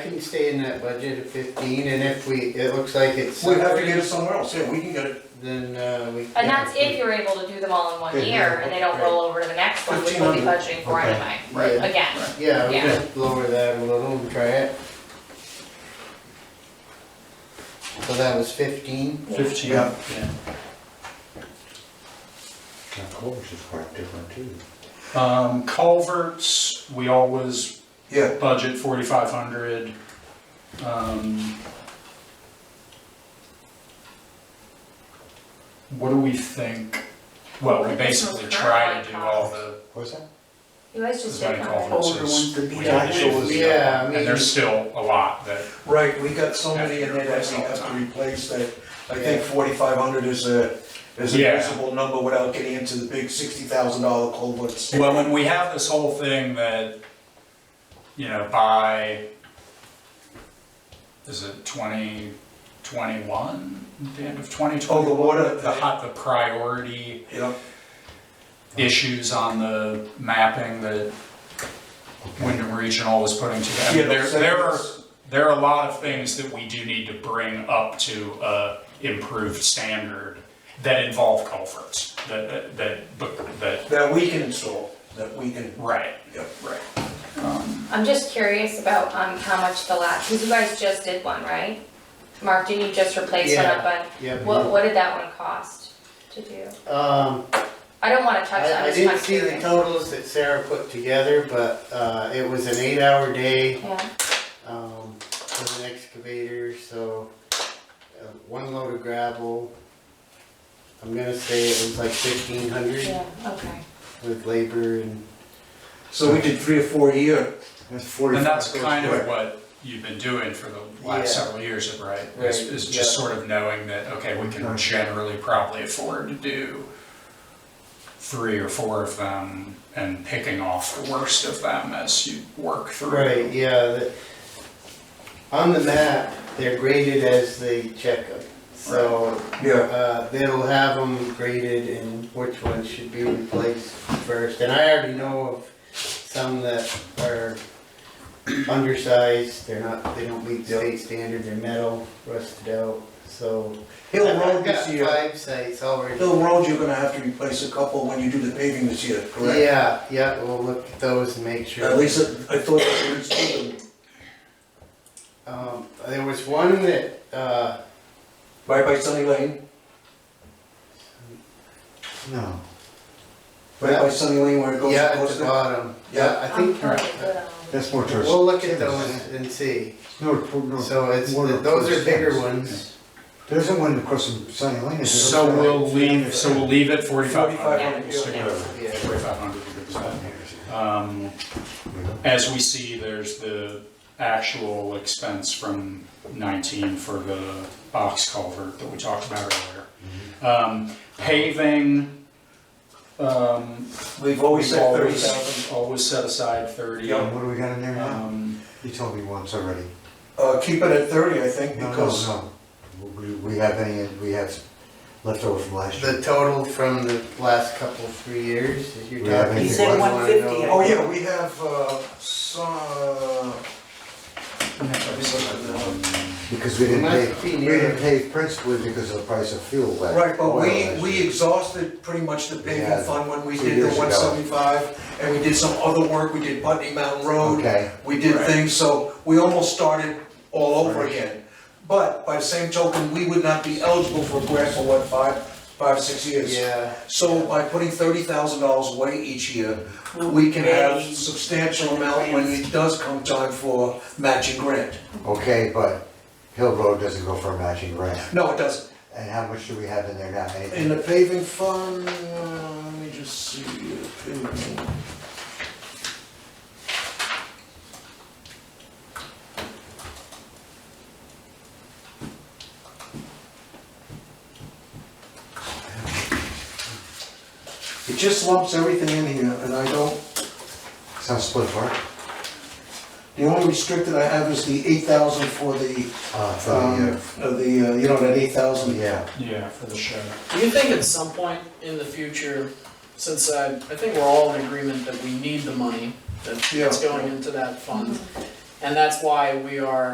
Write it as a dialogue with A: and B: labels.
A: can stay in that budget of fifteen, and if we, it looks like it's.
B: We'd have to get it somewhere else, yeah, we can get it
A: Then, uh, we.
C: And that's if you're able to do them all in one
B: Yeah,
C: year and they don't
A: right.
C: roll over to the next one, which we'll be
B: 1500.
C: budgeting for
B: Okay.
C: anyway,
A: Yeah,
C: again.
A: yeah, we
C: Yeah.
A: just lower that a little and try it. So that was fifteen,
D: Fifteen.
B: Yeah.
E: Now, Culvers is quite different too.
D: Um, culverts, we always
B: Yeah,
D: budget forty-five hundred. Um. What do we think? Well, we basically try to do all the,
E: What's that?
C: You guys
D: as
C: just
D: many
C: did that.
D: culverts
F: Older ones would
D: as
F: be
D: we
F: done.
D: can do.
A: Yeah, I
D: And
A: mean-
D: there's still a lot that,
B: right, we got so many in there that we have to replace that, I think forty-five hundred is a, is a
D: Yeah.
B: reasonable number without getting into the big sixty thousand dollar culverts.
D: well, when we have this whole thing that, you know, by, is it twenty twenty-one? The end of twenty
B: Oh,
D: twenty?
B: the water,
D: The hot, the priority
B: yeah,
D: issues on the mapping that Wyndham Regional was putting together.
B: Yeah,
D: There,
B: so
D: there are,
B: it's-
D: there are a lot of things that we do need to bring up to a improved standard that involve culverts, that, that- that, but- that,
B: that we can install, that we can,
D: right,
B: yeah.
D: right. Um,
C: I'm just curious about, um, how much the last, cause you guys just did one, right? Mark, didn't you just replace one
A: Yeah.
C: up on,
A: yeah.
C: what, what did that one cost to do?
A: Um,
C: I don't wanna touch that,
A: I, I
C: I'm just kinda
A: didn't see the
C: curious.
A: totals that Sarah put together, but, uh, it was an eight-hour day,
C: Yeah,
A: um, with an excavator, so, uh, one load of gravel. I'm gonna say it was like fifteen hundred
C: yeah, okay.
A: with labor and,
B: So we did three or four a year,
E: That's forty.
D: And that's kind of what you've been doing for the last
A: Yeah.
D: several years, right? Is,
A: Right,
D: is
A: yeah.
D: just sort of knowing that, okay, we can generally probably afford to do three or four of them and picking off the worst of them as you work through.
A: right, yeah, the, on the map, they're graded as they check them. So,
B: yeah.
A: uh, they'll have them graded and which ones should be replaced first. And I already know of some that are undersized, they're not, they don't meet the state standard, they're metal, rusted out, so.
B: Hill
A: I've
B: Road
A: got
B: this year,
A: five sites already.
B: Hill Road, you're gonna have to replace a couple when you do the paving this year, correct?
A: Yeah, yeah, we'll look at those and make sure.
B: At least I I thought that we installed them
A: Um, there was one that, uh,
B: right by Sunny Lane,
E: No.
B: right by Sunny Lane where it goes
A: yeah, at
B: across
A: the
B: the.
A: bottom,
B: Yeah.
A: yeah, I
C: I'm
A: think,
C: probably good on all
E: That's more towards.
A: we'll look at those and see.
E: No, no.
A: So it's,
E: more towards
A: those are bigger
E: Sunny.
A: ones.
E: There's the one across from Sunny Lane. is it?
D: So we'll leave, so we'll leave it forty-five hundred.
B: 4,500,
D: We'll stick
B: yeah.
D: with
A: Yeah.
D: it. Forty-five hundred. Um, as we see, there's the actual expense from nineteen for the box culvert that we talked about earlier. Um, paving, um,
B: We've always
D: we've
B: said thirty
D: always,
B: thousand.
D: always set aside thirty.
B: Yeah.
E: What do we got in there now?
D: Um,
E: You told me once already.
B: Uh, keep it at thirty, I think,
E: No, no,
B: because,
E: no. We, we have any, we have left over from last
A: The
E: year.
A: total from the last couple, three years, if you're
E: We haven't-
A: talking.
E: He said
A: you wanna
F: 150,
A: know-
B: oh yeah, we have, uh, some, uh,
E: Because we didn't
A: Must
E: pay,
A: be
E: we
A: near-
E: didn't pay principally because of the price of fuel. that-
B: right, but
E: oil
B: we,
E: last
B: we
E: year.
B: exhausted pretty much the paving
E: Yeah,
B: fund when we
E: two
B: did the
E: years ago.
B: one seventy-five, and we did some other work, we did Putney Mountain Road.
E: Okay,
B: We did
D: Right.
B: things, so we almost started all over again. But by the same token, we would not be eligible for a grant for what, five, five, six years?
A: Yeah,
B: So by putting thirty thousand dollars away each year, we can have substantial amount when it does come time for matching grant.
E: okay, but Hill Road doesn't go for a matching grant.
B: No, it doesn't.
E: And how much do we have in there now? Anything?
B: In the paving fund, uh, let me just see, uh, paving. It just lumps everything in here, and I don't,
E: Sounds split apart.
B: the only restricted I have is the eight thousand for the,
E: Uh, for
B: um,
E: the,
B: uh, the, uh, you know, that eight
E: uh,
B: thousand.
E: yeah,
D: Yeah, for the show.
F: Do you think at some point in the future, since I, I think we're all in agreement that we need the money that- that's
B: Yeah.
F: going into that fund, and that's why we are